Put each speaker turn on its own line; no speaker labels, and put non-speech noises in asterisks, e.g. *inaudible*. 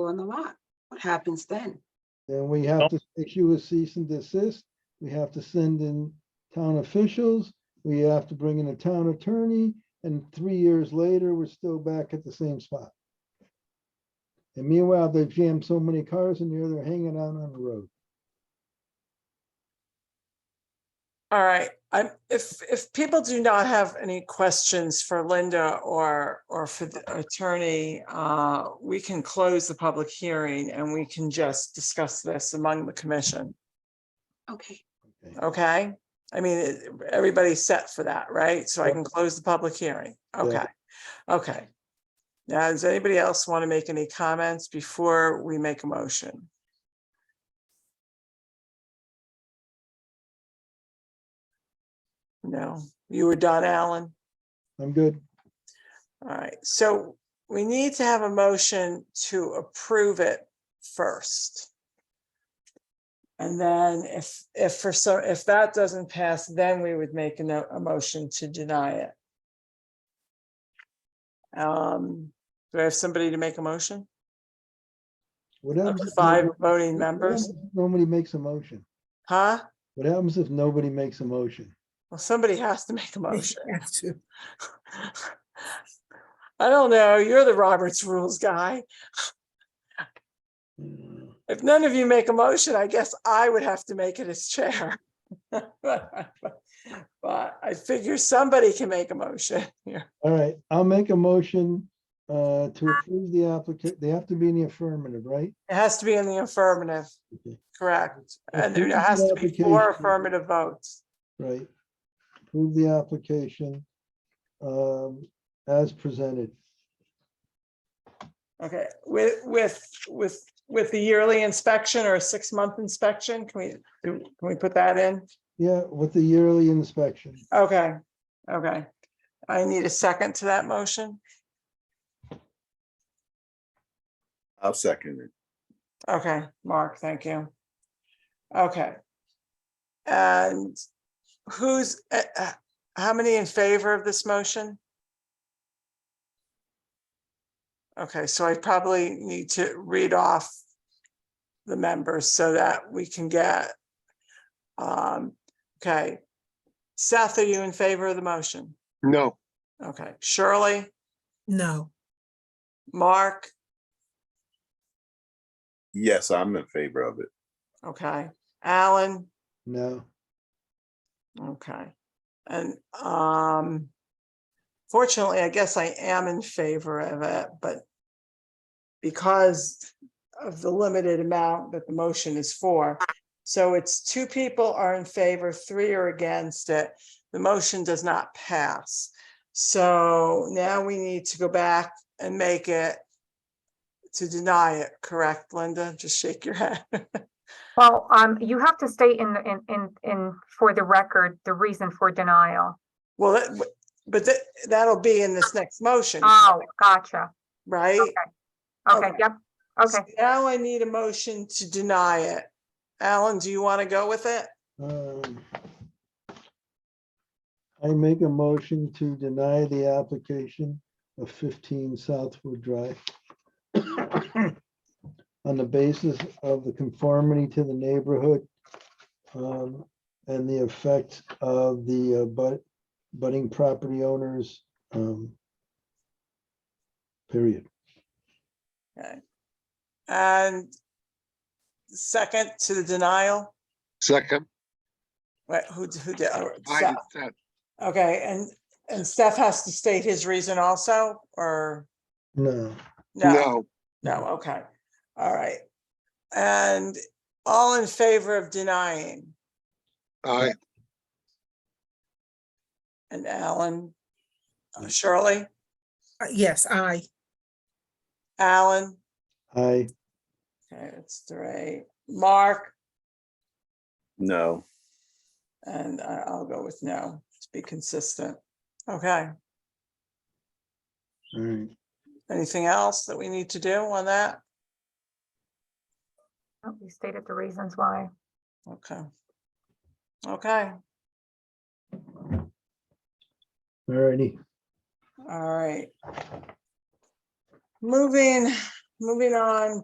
on the lot. What happens then?
Then we have to issue a cease and desist. We have to send in town officials. We have to bring in a town attorney. And three years later, we're still back at the same spot. And meanwhile, they've jammed so many cars in here, they're hanging out on the road.
All right, I'm, if, if people do not have any questions for Linda or, or for the attorney, uh, we can close the public hearing and we can just discuss this among the commission,
Okay,
okay? I mean, it- everybody's set for that, right? So I can close the public hearing, okay? Okay. Now, does anybody else want to make any comments before we make a motion? No, you were done, Alan?
I'm good.
All right, so we need to have a motion to approve it first. And then if, if for so, if that doesn't pass, then we would make a, no- a motion to deny it. Um, do I have somebody to make a motion?
What
Of the five voting members,
Nobody makes a motion.
huh?
What happens if nobody makes a motion?
Well, somebody has to make a motion. *laughs* I don't know, you're the Roberts Rules guy. If none of you make a motion, I guess I would have to make it as chair. *laughs* But I figure somebody can make a motion here.
All right, I'll make a motion uh, to approve the applicant. They have to be in the affirmative, right?
It has to be in the affirmative,
Okay.
correct? And there
Approve
has
the
to be four
application.
affirmative votes.
Right. Approve the application um, as presented.
Okay, with, with, with, with the yearly inspection or a six-month inspection, can we, do- can we put that in?
Yeah, with the yearly inspection.
Okay, okay. I need a second to that motion.
I'll second it.
Okay, Mark, thank you. Okay. And who's, uh, uh, how many in favor of this motion? Okay, so I probably need to read off the members so that we can get. um Okay. Seth, are you in favor of the motion?
No,
Okay, Shirley,
No,
Mark,
yes, I'm in favor of it.
okay, Alan?
No,
Okay, and, um, fortunately, I guess I am in favor of it, but because of the limited amount that the motion is for, so it's two people are in favor, three are against it. The motion does not pass. So now we need to go back and make it to deny it, correct, Linda? Just shake your *laughs* head.
Well, um, you have to state in, in, in, in, for the record, the reason for denial.
Well, that- but that, that'll be in this next motion.
Oh, gotcha.
right?
Okay,
Okay.
yep,
So
okay.
Now I need a motion to deny it. Alan, do you want to go with it?
um, I make a motion to deny the application of 15 Southwood Drive *coughs* on the basis of the conformity to the neighborhood um, and the effects of the uh, but budding property owners. um, Period.
And second to the denial,
Second.
Wait, who, who did? oh,
I
Steph.
said,
Okay, and, and Steph has to state his reason also, or?
No,
No,
No, okay, all right. And all in favor of denying?
I,
And Alan? uh,
Mm.
Shirley?
Uh, yes, I,
Alan?
I,
Okay, that's three. Mark?
no,
And I- I'll go with no, to be consistent. Okay,
all right.
anything else that we need to do on that?
Oh, You stated the reasons why.
Okay. Okay,
Alrighty,
all right. Moving moving on